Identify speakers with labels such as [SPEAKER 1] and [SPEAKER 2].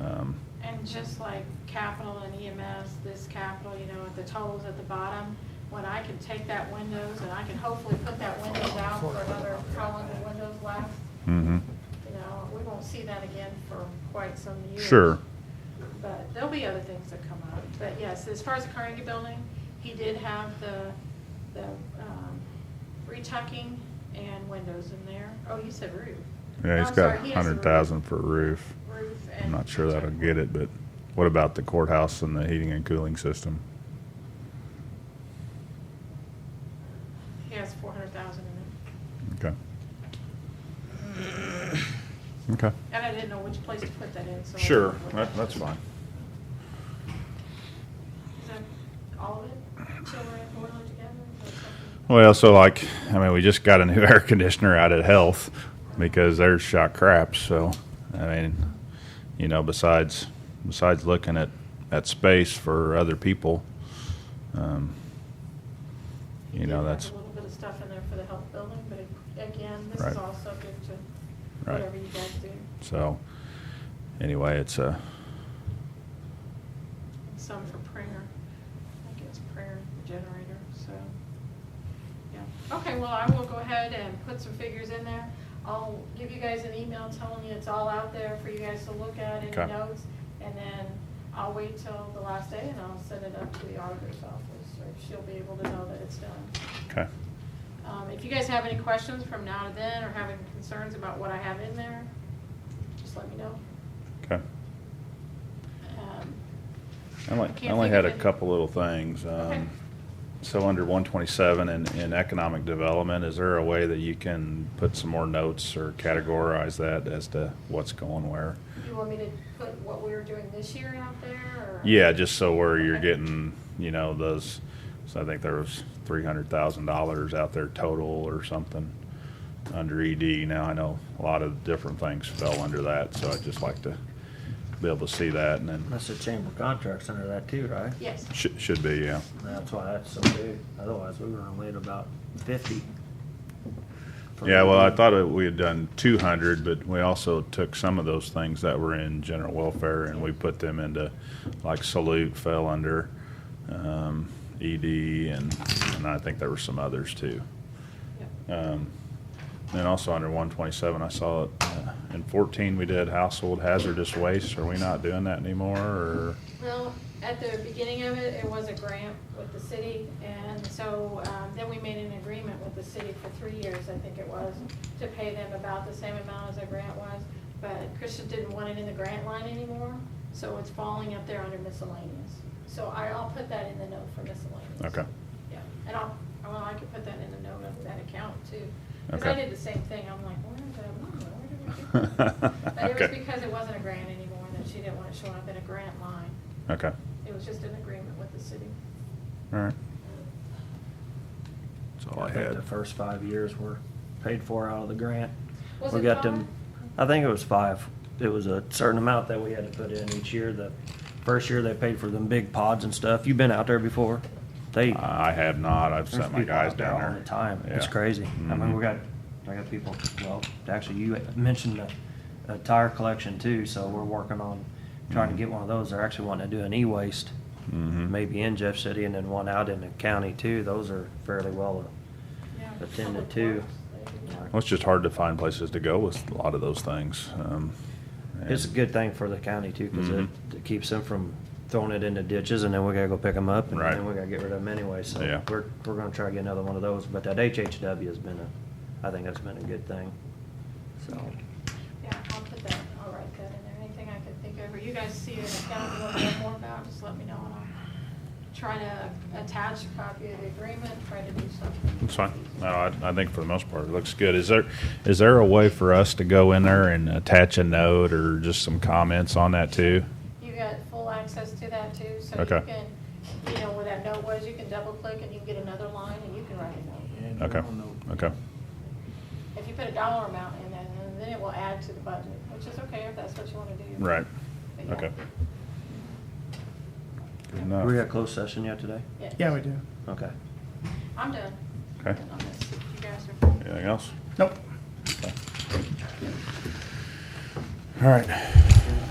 [SPEAKER 1] Um,
[SPEAKER 2] And just like capital and EMS, this capital, you know, at the totals at the bottom, when I can take that windows and I can hopefully put that windows out for another, how long the windows last,
[SPEAKER 1] mhm.
[SPEAKER 2] you know, we won't see that again for quite some years.
[SPEAKER 1] Sure.
[SPEAKER 2] But there'll be other things that come up. But yes, as far as the Carnegie Building, he did have the, the um, retucking and windows in there. Oh, you said roof.
[SPEAKER 1] Yeah,
[SPEAKER 2] No,
[SPEAKER 1] he's
[SPEAKER 2] I'm
[SPEAKER 1] got
[SPEAKER 2] sorry, he has the roof.
[SPEAKER 1] 100,000 for a roof.
[SPEAKER 2] Roof and.
[SPEAKER 1] I'm not sure that'll
[SPEAKER 2] retucking.
[SPEAKER 1] get it, but what about the courthouse and the heating and cooling system?
[SPEAKER 2] He has four hundred thousand in it.
[SPEAKER 1] Okay. Okay.
[SPEAKER 2] And I didn't know which place to put that in, so. I
[SPEAKER 1] Sure,
[SPEAKER 2] didn't look
[SPEAKER 1] that,
[SPEAKER 2] at
[SPEAKER 1] that's
[SPEAKER 2] it.
[SPEAKER 1] fine.
[SPEAKER 2] Is that all of it? Chiller and boiler together? Is that something?
[SPEAKER 1] Well, so like, I mean, we just got a new air conditioner out at Health because theirs shot crap. So, I mean, you know, besides besides looking at at space for other people, um,
[SPEAKER 2] He
[SPEAKER 1] you
[SPEAKER 2] did
[SPEAKER 1] know,
[SPEAKER 2] have
[SPEAKER 1] that's
[SPEAKER 2] A little bit of stuff in there for the health building, but it- again, this
[SPEAKER 1] Right.
[SPEAKER 2] is all subject to
[SPEAKER 1] Right.
[SPEAKER 2] whatever you guys do.
[SPEAKER 1] so. Anyway, it's uh, a
[SPEAKER 2] And Some for prayer, I guess prayer generator, so. Yeah, okay, well, I will go ahead and put some figures in there. I'll give you guys an email telling you it's all out there for you guys to look at,
[SPEAKER 1] Okay.
[SPEAKER 2] any notes. And then I'll wait till the last day and I'll send it up to the auditor's office, so she'll be able to know that it's done.
[SPEAKER 1] okay.
[SPEAKER 2] Um, If you guys have any questions from now to then, or have any concerns about what I have in there, just let me know.
[SPEAKER 1] Okay.
[SPEAKER 2] Um,
[SPEAKER 1] I only, I
[SPEAKER 2] Can't
[SPEAKER 1] only
[SPEAKER 2] think
[SPEAKER 1] had
[SPEAKER 2] of
[SPEAKER 1] a
[SPEAKER 2] it.
[SPEAKER 1] couple little things.
[SPEAKER 2] Okay.
[SPEAKER 1] Um, so under one twenty-seven in, in economic development, is there a way that you can put some more notes or categorize that as to what's going where?
[SPEAKER 2] You want me to put what we were doing this year out there, or?
[SPEAKER 1] Yeah, just so where you're
[SPEAKER 2] Okay.
[SPEAKER 1] getting, you know, those, so I think there was three hundred thousand dollars out there total or something under ED. Now, I know a lot of different things fell under that, so I'd just like to be able to see that and then,
[SPEAKER 3] That's the chamber contracts under that too, right?
[SPEAKER 2] Yes,
[SPEAKER 1] should, should be, yeah.
[SPEAKER 3] That's why that's so big, otherwise we were gonna wait about fifty. for E
[SPEAKER 1] Yeah, well, I
[SPEAKER 3] everything.
[SPEAKER 1] thought it- we had done two hundred, but we also took some of those things that were in general welfare and we put them into, like salute fell under, um, ED and, and I think there were some others too.
[SPEAKER 2] yep.
[SPEAKER 1] Um, and also under one twenty-seven, I saw it, uh, in fourteen, we did household hazardous waste. Are we not doing that anymore or?
[SPEAKER 2] Well, at the beginning of it, it was a grant with the city, and so um, then we made an agreement with the city for three years, I think it was, to pay them about the same amount as the grant was, but Christian didn't want it in the grant line anymore, so it's falling up there under miscellaneous. So I- I'll put that in the note for miscellaneous.
[SPEAKER 1] Okay.
[SPEAKER 2] Yeah, and I'll, well, I could put that in the note of that account too, because I
[SPEAKER 1] Okay.
[SPEAKER 2] did the same thing, I'm like, where is that, money? where did we get that? But it was
[SPEAKER 1] Okay.
[SPEAKER 2] because it wasn't a grant anymore, that she didn't want it showing up in a grant line.
[SPEAKER 1] Okay,
[SPEAKER 2] It was just an agreement with the city.
[SPEAKER 1] all right. That's all I
[SPEAKER 3] think
[SPEAKER 1] had.
[SPEAKER 3] The first five years were paid for out of the grant.
[SPEAKER 2] Was
[SPEAKER 3] We
[SPEAKER 2] it
[SPEAKER 3] got
[SPEAKER 2] five?
[SPEAKER 3] them. I think it was five. It was a certain amount that we had to put in each year. The first year they paid for them big pods and stuff. You've been out there before? They.
[SPEAKER 1] I have not. I've
[SPEAKER 3] There's
[SPEAKER 1] sent my
[SPEAKER 3] people
[SPEAKER 1] guys
[SPEAKER 3] out there
[SPEAKER 1] down there.
[SPEAKER 3] all the time. It's
[SPEAKER 1] Yeah.
[SPEAKER 3] crazy. I mean,
[SPEAKER 1] Mhm.
[SPEAKER 3] we got, I got people, well, actually, you mentioned the uh, tire collection too, so we're working on
[SPEAKER 1] Mm-hmm.
[SPEAKER 3] trying to get one of those. They're actually wanting to do an e-waste,
[SPEAKER 1] Mhm.
[SPEAKER 3] maybe in Jeff City and then one out in the county too. Those are fairly well, uh,
[SPEAKER 2] Yeah,
[SPEAKER 3] Attended
[SPEAKER 2] Public
[SPEAKER 3] to.
[SPEAKER 2] Works, they did.
[SPEAKER 1] Well, it's just hard to find places to go with a lot of those things. Um,
[SPEAKER 3] it's a
[SPEAKER 1] and-
[SPEAKER 3] good thing for the county too, because
[SPEAKER 1] Mhm.
[SPEAKER 3] it it keeps them from throwing it into ditches and then we gotta go pick them up and
[SPEAKER 1] Right.
[SPEAKER 3] then we gotta get rid of them anyway. So
[SPEAKER 1] Yeah.
[SPEAKER 3] we're, we're gonna try to get another one of those, but that HHW has been a, I think that's been a good thing, so.
[SPEAKER 2] Yeah, I'll put that, I'll write that in there, anything I can think of, or you guys see it, account you want to know more about, just let me know, and I'll try to attach a copy of the agreement, try to do something.
[SPEAKER 1] It's fine. No, I, I think for the most part, it looks good. Is there, is there a way for us to go in there and attach a note or just some comments on that too?
[SPEAKER 2] You got full access to that too, so you
[SPEAKER 1] Okay.
[SPEAKER 2] can, you know, where that note was, you can double click and you can get another line and you can write a note.
[SPEAKER 1] Okay, okay,
[SPEAKER 2] If you put a dollar amount in there, then- then it will add to the budget, which is okay if that's what you want to do.
[SPEAKER 1] right.
[SPEAKER 2] But yeah.
[SPEAKER 1] Okay. Good
[SPEAKER 3] Do we got
[SPEAKER 1] enough.
[SPEAKER 3] closed session yet today?
[SPEAKER 4] Yeah, we do.
[SPEAKER 3] Okay.
[SPEAKER 2] I'm done.
[SPEAKER 1] Okay.
[SPEAKER 2] Done on this. You guys are.
[SPEAKER 1] Anything else?
[SPEAKER 4] Nope.
[SPEAKER 1] All right.